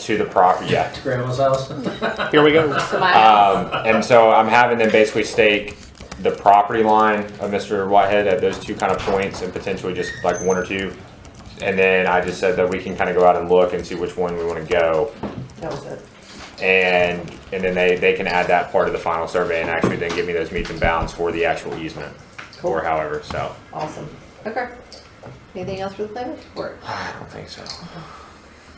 to the property. Yeah. Grandma's house. Here we go. to my house. Um, and so I'm having them basically stake the property line of Mr. Whitehead at those two kind of points and potentially just like one or two. And then I just said that we can kind of go out and look and see which one we want to go. That was it. And, and then they, they can add that part of the final survey and actually then give me those meets and bounds for the actual easement or however, so. Awesome. Okay. Anything else for the planning board? I don't think so.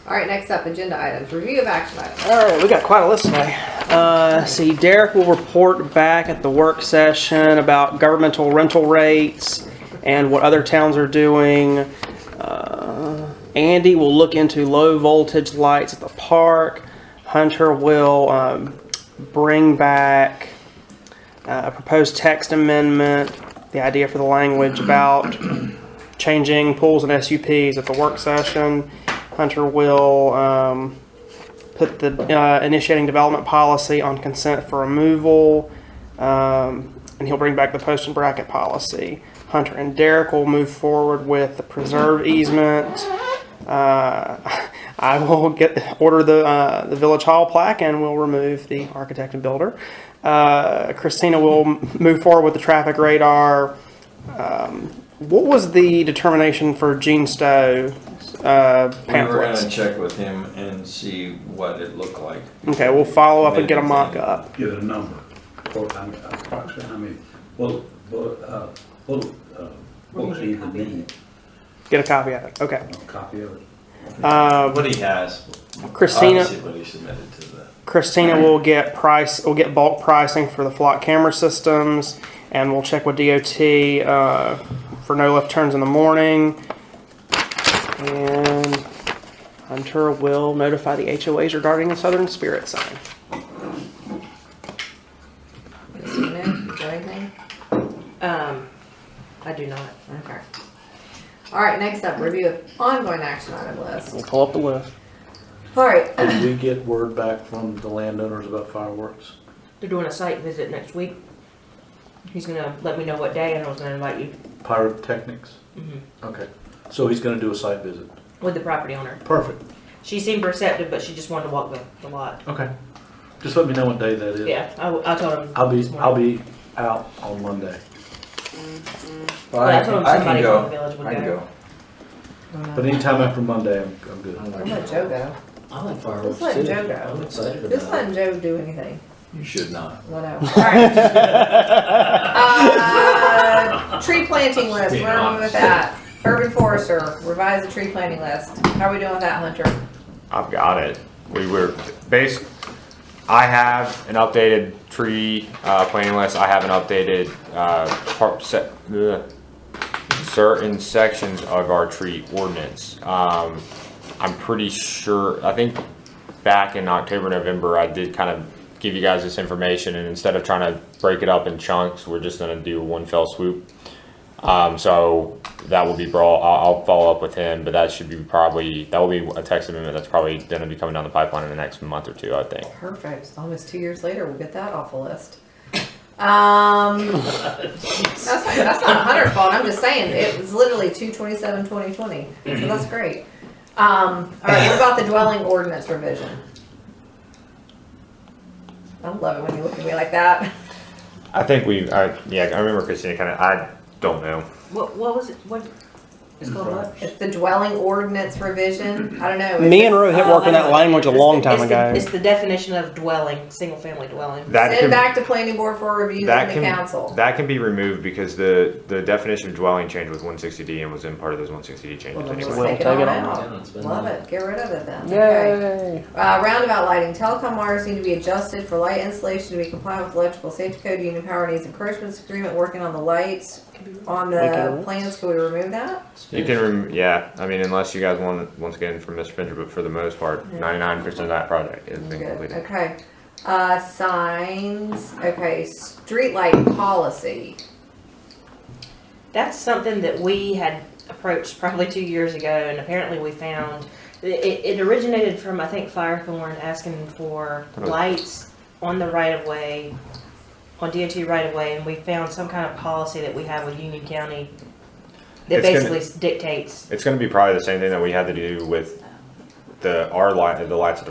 All right, next up, agenda items, review of action items. All right, we got quite a list today. Uh, see, Derek will report back at the work session about governmental rental rates and what other towns are doing. Uh, Andy will look into low voltage lights at the park. Hunter will um, bring back uh, a proposed text amendment, the idea for the language about changing pools and SUPs at the work session. Hunter will. Um, put the uh, initiating development policy on consent for removal, um, and he'll bring back the post and bracket policy. Hunter and Derek will move forward with the preserve easement. Uh, I will get order the uh, the village hall plaque and we'll remove the architect and builder. Uh, Christina will m- move forward with the traffic radar. Um, what was the determination for Gene Stowe uh, We were pamphlets? gonna check with him and see what it looked like. Okay, we'll follow up and get a Maybe. mock up. get a number, or I mean, approximately, I mean, what, what, uh, what, uh, what would even need, Get a copy of it. Okay. a copy of it? Um, What he has. Christina- Obviously what he submitted to the. Christina will get price. We'll get bulk pricing for the flock camera systems, and we'll check with DOT uh, for no left turns in the morning. And Hunter will notify the HOAs regarding the Southern Spirit sign. Mr. Moon, is there anything? Um, I do not. Okay. All right, next up, review of ongoing action item list. We'll pull up the list. All right, Did we get word back from the landowners about fireworks? They're doing a site visit next week. He's gonna let me know what day, and I was gonna invite you Pyrotechnics? Okay, so he's gonna do a site visit. with the property owner. Perfect. She seemed receptive, but she just wanted to walk the, the lot. Okay. Just let me know what day that is. Yeah, I, I told him. I'll be, this morning. I'll be out on Monday, Well, But I I told him can, I can somebody from the go, village would I can go. go. but anytime after Monday, I'm, I'm good. I'm gonna Joe go. I like fireworks Just let too. Joe go. I'm excited about it. Just letting Joe do anything. You should not. Whatever. All right. Uh, Tree planting list, where are we with that? Urban forester, revise the tree planting list. How are we doing with that, Hunter? I've got it. We were base. I have an updated tree uh, planting list. I have an updated uh, par- se- ugh, certain sections of our tree ordinance. Um, I'm pretty sure. I think back in October, November, I did kind of give you guys this information, and instead of trying to break it up in chunks, we're just going to do one fell swoop. Um, so that will be brought. I'll, I'll follow up with him, but that should be probably that will be a text amendment that's probably going to be coming down the pipeline in the next month or two, I think. Perfect. It's Almost two years later, we'll get that off the list. Um, that's, not- that's not Hunter's fault. I'm just saying it was literally 227 2020. So that's great. Um, all right, what about the dwelling ordinance revision? I love it when you look at me like that. I think we. I, yeah, I remember Christina kind of. I don't know. What, what was it? What? It's called what? It's the dwelling ordinance revision. I don't know. is Me it- and Rohit Oh, worked on I know. that language a It's the- long time it's the- ago. It's the definition of dwelling, single family dwelling. That Send can back to planning board for review that from the can council. that can be removed because the the definition of dwelling changed with 160D and was in part of those 160D changes Well, then anyway. just We'll take it take all it out. It's been Love nice. it. Get rid of it then. Okay. Yay! Uh, roundabout lighting, telecom wires need to be adjusted for light installation to be compliant with electrical safety code, union power needs encouragements agreement, working on the lights. On We can the remove. plans, can we remove that? It's You can, finished. rem- yeah. I mean, unless you guys want once again from Mr. Fincher, but for the most part, 99% of that project has been Good, completed. okay. Uh, signs, okay, streetlight policy. That's something that we had approached probably two years ago, and apparently we found, it, it originated from, I think, Firethorn asking for Oh. lights on the right of way, on DOT right of way, and we found some kind of policy that we have with Union County that It's gonna- basically dictates It's going to be probably the same thing that we had to do with the our light, the lights at the